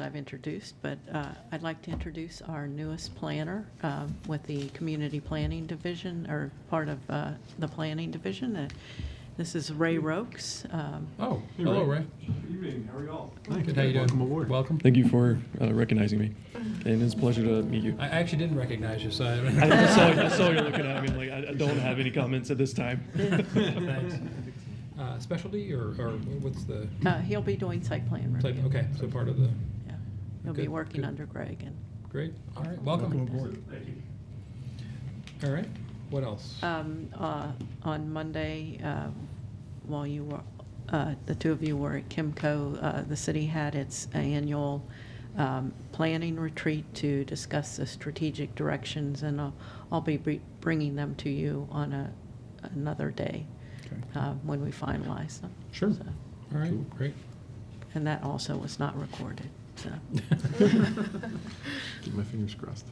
I've introduced, but uh, I'd like to introduce our newest planner um, with the Community Planning Division, or part of uh, the Planning Division. Uh, This is Ray Rokes. Um, Oh, Hey, hello, Ray. Ray. Good evening, how are y'all? Good, how you doing? Welcome aboard. Welcome. Thank you for uh, recognizing me, and it's a pleasure to meet you. I actually didn't recognize you, so I I, I saw, I saw you looking at me like I, I don't have any comments at this time. Thanks. Uh, specialty or, or what's the uh, He'll be doing site plan type? review. Okay, so part of the Yeah. He'll be Good, working good. under Greg and great. All right, Welcome welcome. aboard. Thank you. All right, what else? Um, uh, On Monday, uh, while you were, uh, the two of you were at Kimco, uh, the city had its annual um, planning retreat to discuss the strategic directions, and I'll- I'll be br- bringing them to you on a- another day uh, when we finalize them. Sure. So, All right, great. And that also was not recorded, so. Keep my fingers crossed.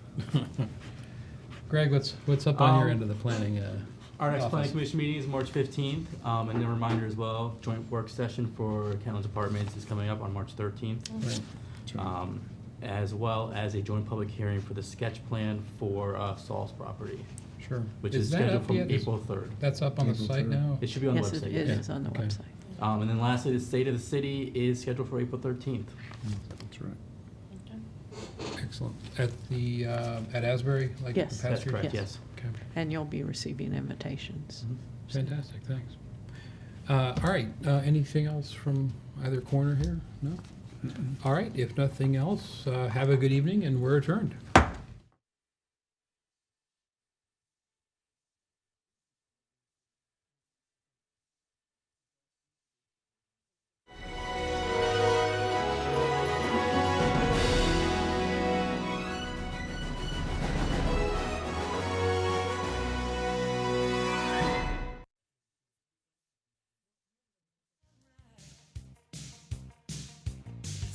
Greg, what's what's up on your Um, end of the planning? Uh, Our next planning office? commission meeting is March fifteenth, um, and a reminder as well, joint work session for Kentland's Apartments is coming up on March thirteenth. Right. Um, as well as a joint public hearing for the sketch plan for, uh, Saul's property, Sure. which is that scheduled up from yet? Is- April third. That's up on the April site third. now. It should be on the Yes, it website. it yeah. is on the Okay. website. Um, and then lastly, the state of the city is scheduled for April thirteenth. That's right. Excellent. At the uh, at Asbury, like Yes. the That's past year? Yes. correct, yes. Mm-hmm. Okay. And you'll be receiving invitations. Fantastic, thanks. Uh, All right, uh, anything else from either corner here? No? All right, if nothing else, uh, have a good evening, and we're adjourned.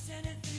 Send it through